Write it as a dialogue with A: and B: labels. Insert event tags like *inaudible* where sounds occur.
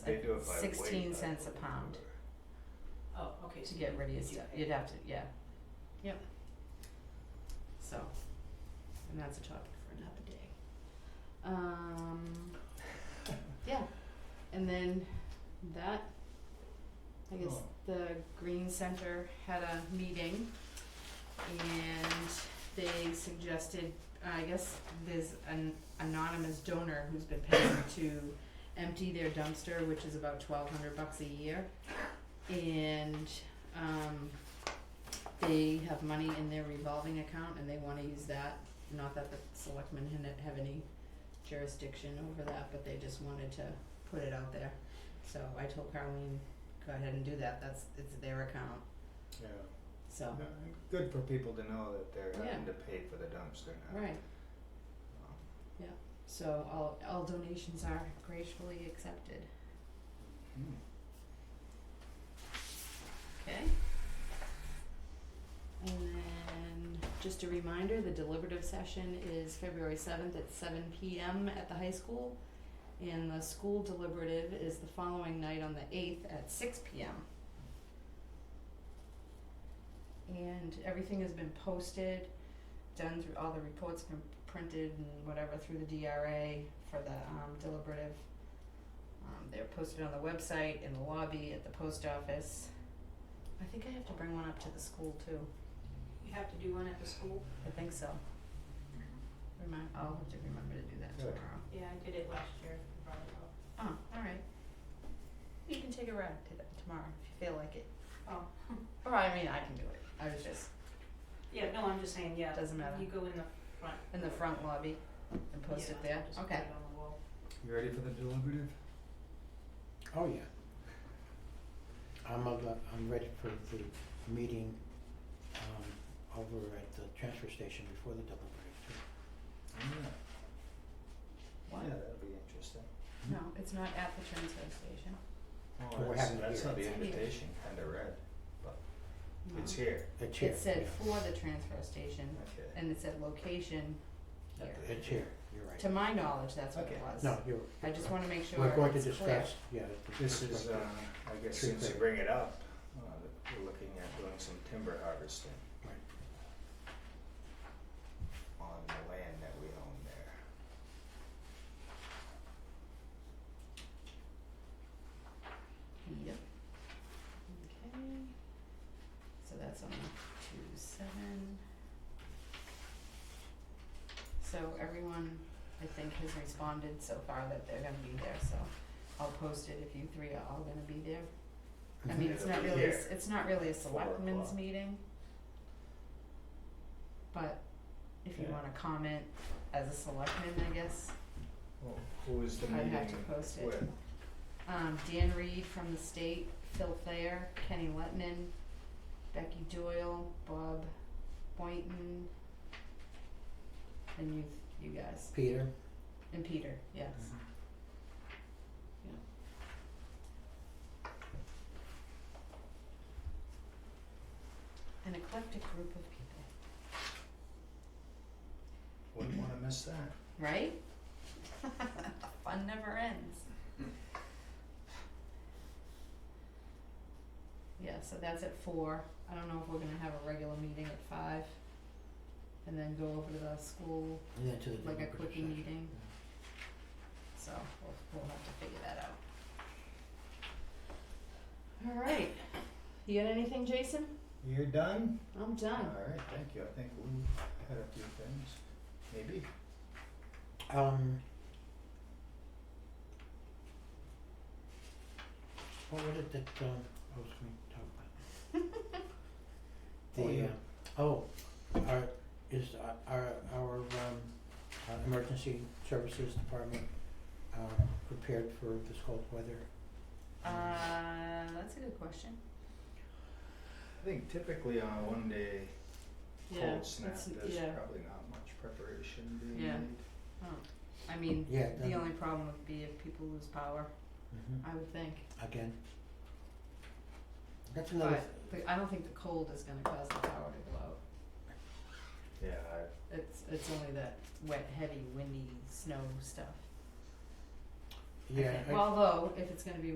A: They do it by weight,
B: sixteen
A: I
B: cents a
A: believe,
B: pound
A: or-
C: Oh, okay,
B: to
C: so
B: get rid of your
C: you
B: stuff,
C: pay.
B: you'd have to, yeah. Yep. So, and that's a topic for another day. Um, *laughs* yeah, and then that, I guess
D: Oh.
B: the Green Center had a meeting and they suggested, I guess there's an anonymous donor who's been paying to empty their dumpster, which is about twelve hundred bucks a year. And um they have money in their revolving account and they wanna use that, not that the selectmen had have any jurisdiction over that, but they just wanted to put it out there. So I told Carleen, go ahead and do that, that's it's their account,
D: Yeah,
B: so,
D: No, and good for people to know that they're
B: Yeah.
D: having to pay for the dumpster now.
B: right,
D: Um,
B: so all all donations are gracefully accepted,
D: hmm.
B: okay? And then, just a reminder, the deliberative session is February seventh at seven P M at the high school. And the school deliberative is the following night on the eighth at six P M. And everything has been posted, done through, all the reports been printed and whatever through the D R A for the um deliberative. Um they're posted on the website, in the lobby, at the post office. I think I have to bring one up to the school too.
C: You have to do one at the school?
B: I think so. Remind, I'll have to remember to do that
D: Good.
B: tomorrow.
C: Yeah, I did it last year, brought it up.
B: Oh, alright. You can take a ride to that tomorrow if you feel like it.
C: Oh,
B: Or I mean, I can do it. I was just
C: yeah, no, I'm just saying, yeah.
B: Doesn't matter.
C: You go in the front.
B: in the front lobby and post it
C: Yeah,
B: there.
C: just
B: Okay.
C: put it on the wall.
D: You ready for the deliberative?
E: Oh, yeah. I'm, a- I'm ready for the meeting, um, over at the transfer station before the double break too.
D: Yeah.
B: What?
D: Yeah, that'll be interesting.
C: Mm-hmm.
B: No, it's not at the transfer station.
D: Oh,
E: We're
D: that's,
E: having it
D: that's
E: here.
D: how the
B: It's here.
D: invitation kinda read, but
B: No.
D: it's here,
E: It's here,
B: It said
E: yes.
B: for the transfer station
D: okay.
B: and it said location here.
E: It's here, you're right.
B: To my knowledge, that's what it
D: Okay.
B: was.
E: No, you're.
B: I just wanna make sure
E: We're going to
B: it's clear.
E: discuss, yeah. it's-
D: This
E: it's
D: is,
E: right
D: uh,
E: there.
D: I guess
E: Tree
D: since you
E: clearing.
D: bring it up, uh, we're looking at doing some timber harvesting
E: Right.
D: on the land that we own there.
B: Yep. Okay. So that's on two seven. So everyone, I think, has responded so far that they're gonna be there, so I'll post it if you three are all gonna be there. I mean, it's
D: It'll
B: not
D: be
B: really, a s-
D: here.
B: it's not really a
D: Four
B: selectmen's
D: o'clock.
B: meeting. But if you
D: Yeah.
B: wanna comment as a selectman, I guess,
D: Well, who is the
B: I
D: meeting
B: have
D: with?
B: to post it. Um, Dan Reed from the state, Phil Thayer, Kenny Letman, Becky Doyle, Bob Boynton, and you, you guys,
E: Peter,
B: and Peter, yes. An eclectic group of people,
D: Wouldn't wanna miss that.
B: right? *laughs* Fun never ends. Yeah, so that's at four. I don't know if we're gonna have a regular meeting at five. And then go over to the school
E: and then to the
B: like a
E: deliberative
B: quickie
E: session.
B: meeting. So we'll we'll have to figure that out. Alright, you got anything, Jason?
D: You're done?
B: I'm done.
D: Alright, thank you, I think we had a few things, maybe.
E: Um. What was it that, um, I was going to talk
D: *laughs*
E: about?
D: Oh, yeah.
E: The, uh, oh, our, is uh, our, our, um, uh, emergency services department, uh, prepared for this cold weather?
B: Uh, that's a good question.
D: I think typically on a one day cold snap, there's probably not much preparation being made.
B: Yeah. Oh, I mean,
E: Yeah,
B: the
E: that-
B: only problem would be if people lose power,
D: Mm-hmm.
E: Mhm,
B: I would think.
E: again. That's another,
B: But the, I don't think the cold is gonna cause the power to go out.
D: Yeah,
B: It's it's only that wet, heavy, windy, snow stuff. I
E: yeah,
B: think.
E: I-
B: Well, although if it's gonna be